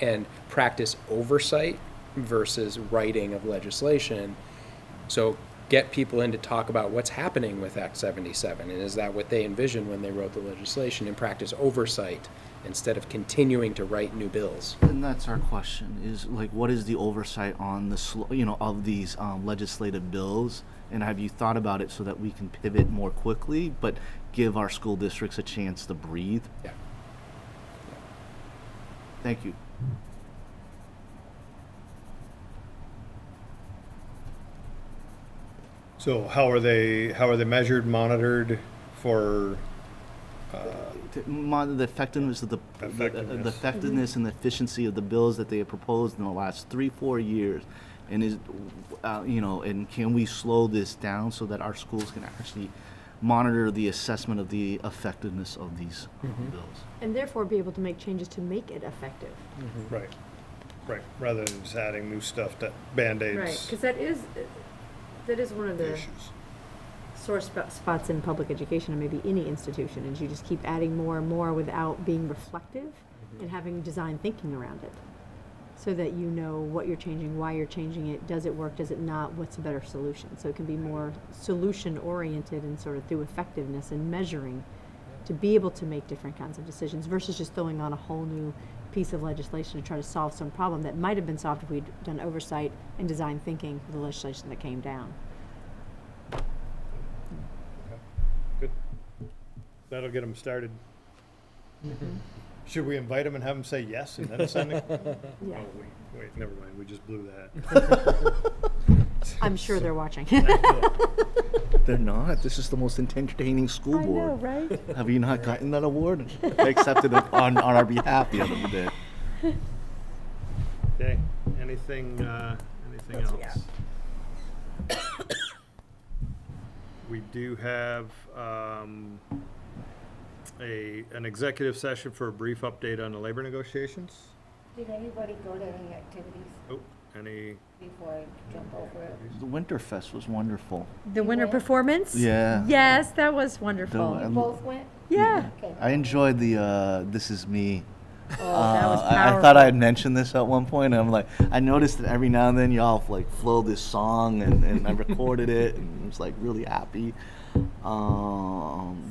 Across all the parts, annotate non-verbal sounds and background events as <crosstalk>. and practice oversight versus writing of legislation. So get people in to talk about what's happening with Act 77, and is that what they envisioned when they wrote the legislation, and practice oversight instead of continuing to write new bills. And that's our question: is like, what is the oversight on the sl- you know of these um, legislative bills? And have you thought about it so that we can pivot more quickly, but give our school districts a chance to breathe? Yeah. Thank you. So how are they, how are they measured, monitored for, To monitor the effectiveness of the the- the- the Effectiveness. effectiveness and the efficiency of the bills that they have proposed in the last three four years, and is uh, you know, and can we slow this down so that our schools can actually monitor the assessment of the effectiveness of these bills? And therefore be able to make changes to make it effective. right, right, rather than just adding new stuff to Right, Band-Aids because that is, that is one of the issues. sore spo- spots in public education, and maybe any institution, is you just keep adding more and more without being reflective and having design thinking around it. So that you know what you're changing, why you're changing it, does it work, does it not, what's a better solution? So it can be more solution-oriented and sort of through effectiveness and measuring to be able to make different kinds of decisions versus just throwing on a whole new piece of legislation to try to solve some problem that might have been solved if we'd done oversight and design thinking for the legislation that came down. Good. That'll get them started. Should we invite them and have them say yes and then send it? Mm-hmm. <laughs> Yeah. Oh, wait, wait, never mind, we just blew that. I'm sure they're watching. <laughs> They're not. This is the most entertaining school board. right? <laughs> Have you not gotten that award? They accepted it on, on our behalf the other day. Okay, anything, uh, anything else? We do have, um, a, an executive session for a brief update on the labor negotiations. Did anybody go to any activities Oh, any, before I jump over it? The Winterfest was wonderful. The winter performance? Yeah. Yes, Oh, that was No, I wonderful. lo- Both went? Yeah. Okay. Um, I enjoyed the uh, "This Is Me." Oh, that was Uh, I, I thought I had mentioned this at one point, and I'm like, I noticed that every now and then y'all like flow this song, and, and I recorded it, and I was like really happy. Um, the So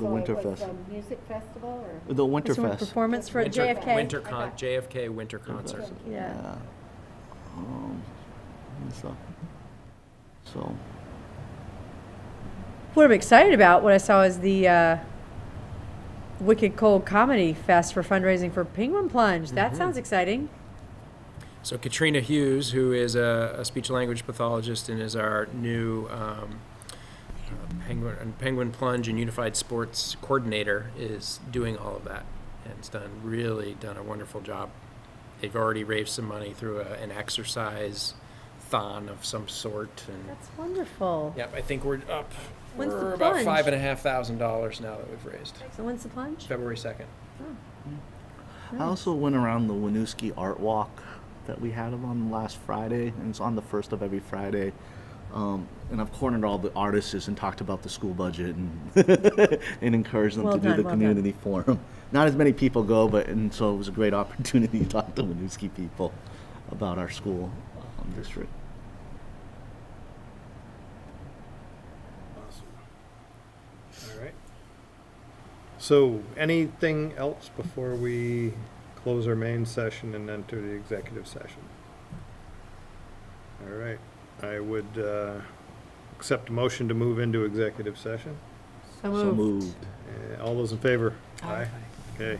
it was Winterfest, a Music festival or? the Winterfest. Performance for Winter- JFK. Winter con, JFK winter concert. Yeah. Yeah. Um, and stuff. So. What I'm excited about, what I saw is the uh, Wicked Cold Comedy Fest for fundraising for Penguin Plunge. Mm-hmm. That sounds exciting. So Katrina Hughes, who is a, a speech language pathologist and is our new um, uh, penguin, and penguin plunge and unified sports coordinator, is doing all of that and has done really done a wonderful job. They've already raised some money through a, an exercise thon of some sort, and That's wonderful. yep, I think we're up. When's the we're about plunge? five and a half thousand dollars now that we've raised. So when's the plunge? Oh. February second. I also went around the Winooski Art Walk that we had on last Friday, and it's on the first of every Friday. Um, and I've cornered all the artists and talked about the school budget and, <laughs> and encouraged them Well to do done, the well done. community forum. Not as many people go, but and so it was a great opportunity to talk to Winooski people about our school um, district. all right. So, anything else before we close our main session and enter the executive session? All right, I would, uh, accept a motion to move into executive session. So So moved. moved. Uh, All those in favor? Aye. Okay.